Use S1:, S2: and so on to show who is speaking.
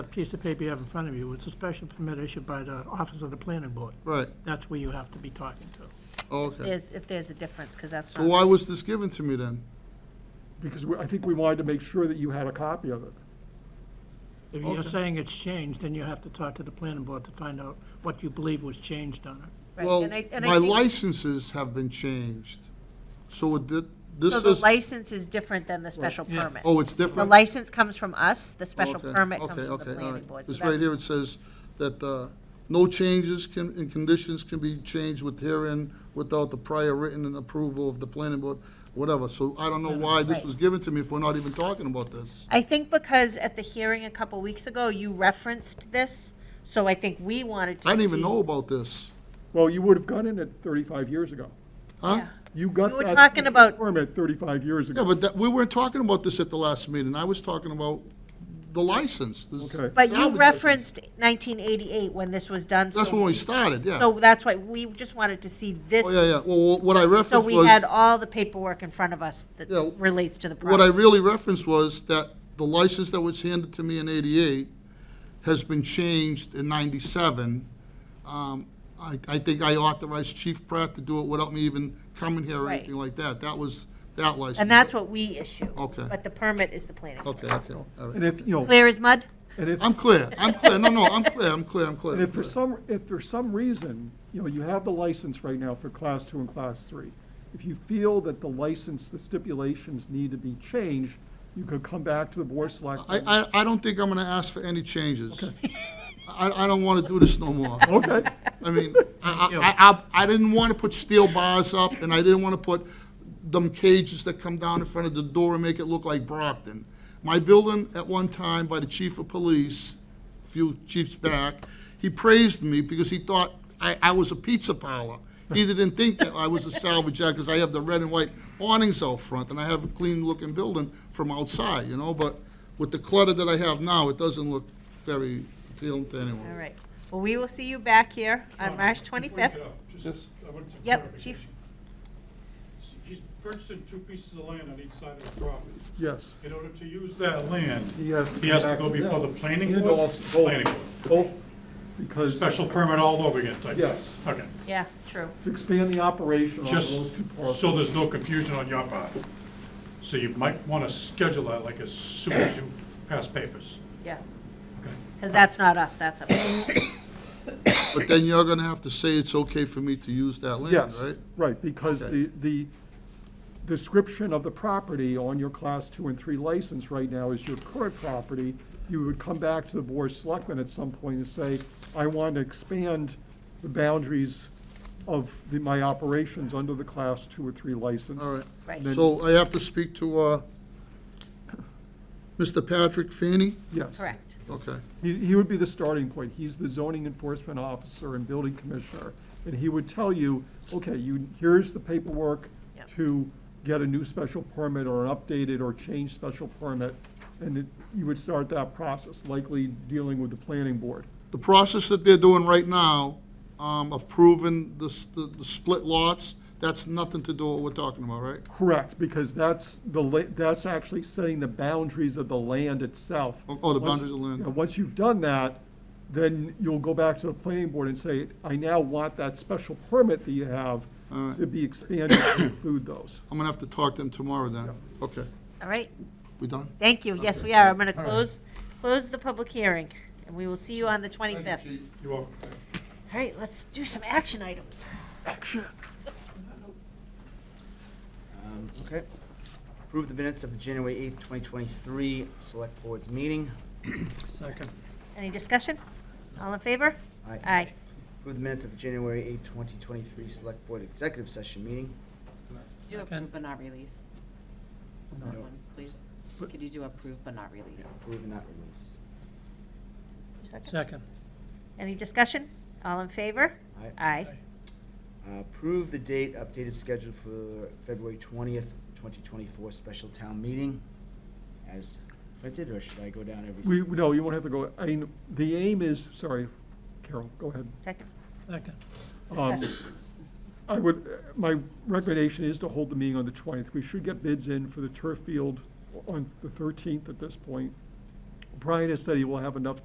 S1: piece of paper you have in front of you, it's a special permit issued by the Office of the Planning Board.
S2: Right,
S1: That's where you have to be talking to.
S2: oh, okay.
S3: There's, if there's a difference, because that's
S2: So why
S3: not,
S2: was this given to me then?
S4: because we- I think we wanted to make sure that you had a copy of it.
S1: If you're
S2: Okay.
S1: saying it's changed, then you have to talk to the planning board to find out what you believe was changed on it.
S3: right,
S2: Well,
S3: and I- and I
S2: my
S3: think-
S2: licenses have been changed, so would thi- this
S3: So
S2: is...
S3: the license is different than the special permit.
S2: Oh, it's
S3: The
S2: different?
S3: license comes from us, the special
S2: Okay,
S3: permit comes
S2: okay,
S3: from the
S2: okay, all
S3: planning
S2: right.
S3: board. So
S2: This
S3: that-
S2: right here, it says that uh, no changes can, in conditions can be changed with herein without the prior written and approval of the planning board, whatever. So I don't know why this
S3: Right.
S2: was given to me if we're not even talking about this.
S3: I think because at the hearing a couple weeks ago, you referenced this, so I think we wanted to
S2: I didn't even
S3: see-
S2: know about this.
S4: Well, you would have gotten it 35 years ago.
S2: Huh?
S4: You got
S3: We were
S4: that
S3: talking about-
S4: Permit 35 years
S2: Yeah,
S4: ago.
S2: but that, we weren't talking about this at the last meeting. I was talking about the license. this
S4: Okay.
S3: But you
S2: salvage
S3: referenced 1988 when this was done.
S2: license. That's
S3: so-
S2: when we started, yeah.
S3: So that's why, we just wanted to see this.
S2: Oh, yeah, yeah. Well, what I
S3: So
S2: referenced was...
S3: we had all the paperwork in front of us that
S2: Yeah,
S3: relates to the
S2: What I
S3: project.
S2: really referenced was that the license that was handed to me in eighty-eight has been changed in ninety-seven. Um, I, I think I authorized Chief Pratt to do it without me even coming here or
S3: Right.
S2: anything like that. That was that license.
S3: And that's what we issue.
S2: Okay.
S3: But the permit is the planning. board.
S2: Okay, okay, all right.
S4: And if, you know,
S3: Clear as mud?
S4: and if,
S2: I'm clear, I'm clear, no, no, I'm clear, I'm clear, I'm clear.
S4: and
S2: I'm
S4: if for
S2: clear.
S4: some, if for some reason, you know, you have the license right now for Class 2 and Class 3. If you feel that the license, the stipulations need to be changed, you could come back to the Board of Selectmen.
S2: I, I, I don't think I'm gonna ask for any changes. I, I don't wanna do this no more.
S4: Okay,
S2: I mean, I, I, I, I didn't want to put steel bars up, and I didn't want to put them cages that come down in front of the door and make it look like Brockton. My building, at one time, by the chief of police, a few chiefs back, he praised me because he thought I, I was a pizza parlor. He didn't think that I was a salvage yard, because I have the red and white awnings out front, and I have a clean-looking building from outside, you know, but with the clutter that I have now, it doesn't look very appealing to anyone.
S3: All right. Well, we will see you back here on Uh, March
S5: Before you
S3: 25th.
S5: get up, just- I want some
S3: Yep, chief.
S5: clarification. He's purchasing two pieces of land on each side of the property.
S4: yes.
S5: In order to use that land,
S4: He has
S5: he has to
S4: back
S5: go
S4: it
S5: before
S4: down.
S5: the planning
S4: And
S5: board,
S4: also both-
S5: planning board.
S4: Both, because
S5: Special permit all over again type.
S4: Yes.
S5: Okay,
S3: Yeah, true.
S4: to expand the operation on
S5: just
S4: those two parcels.
S5: so there's no confusion on your part. So you might want to schedule that like as soon as you pass papers.
S3: Yeah.
S5: Okay.
S3: Because that's not us, that's a,
S2: But then you're gonna have to say it's okay for me to use that land,
S4: Yes,
S2: right?
S4: right, because
S2: Okay.
S4: the, the description of the property on your class two and three license right now is your current property. You would come back to the board of selectmen at some point and say, I want to expand the boundaries of the, my operations under the class two or three license.
S2: All right.
S3: right.
S2: So I have to speak to, uh, Mr. Patrick Fanny?
S4: Yes.
S3: Correct.
S2: Okay,
S4: He, he would be the starting point. He's the zoning enforcement officer and building commissioner. And he would tell you, okay, you, here's the paperwork
S3: Yep.
S4: to get a new special permit or an updated or changed special permit. And it, you would start that process, likely dealing with the planning board.
S2: the process that they're doing right now, um, of proving the, s- the the split lots, that's nothing to do with what we're talking about, right?
S4: Correct, because that's the, la- that's actually setting the boundaries of the land itself.
S2: Oh, oh, the
S4: Once-
S2: boundaries of the land.
S4: yeah, Once you've done that, then you'll go back to the planning board and say, I now want that special permit that you have
S2: All right.
S4: to be expanded to include those.
S2: I'm gonna have to talk to him tomorrow then. Okay,
S3: All right.
S2: we done?
S3: Thank you. Yes, we are. I'm going to close, close the public hearing, and we will see you on the 25th. All
S5: You welcome.
S3: right, let's do some action items.
S6: Um, Okay. Approve the minutes of the January 8th, 2023 Select Board's meeting.
S1: Second.
S3: Any discussion? All in favor?
S6: Aye.
S3: Aye.
S6: Approve the minutes of the January 8th, 2023 Select Board Executive Session meeting.
S7: Do approve but not release. Another one, please. Could you do approve but not release?
S6: Approve and not release.
S3: Second.
S1: Second.
S3: Any discussion? All in favor?
S6: Aye.
S3: Aye.
S6: Uh, Approve the date, updated schedule for February 20th, 2024 Special Town Meeting as printed, or should I go down every?
S4: We, no, you won't have to go, I mean, the aim is, sorry, Carol, go ahead.
S3: Second.
S1: Second.
S4: Um,
S3: Discussion.
S4: I would, my recommendation is to hold the meeting on the 20th. We should get bids in for the turf field on the 13th at this point. Brian has said he will have enough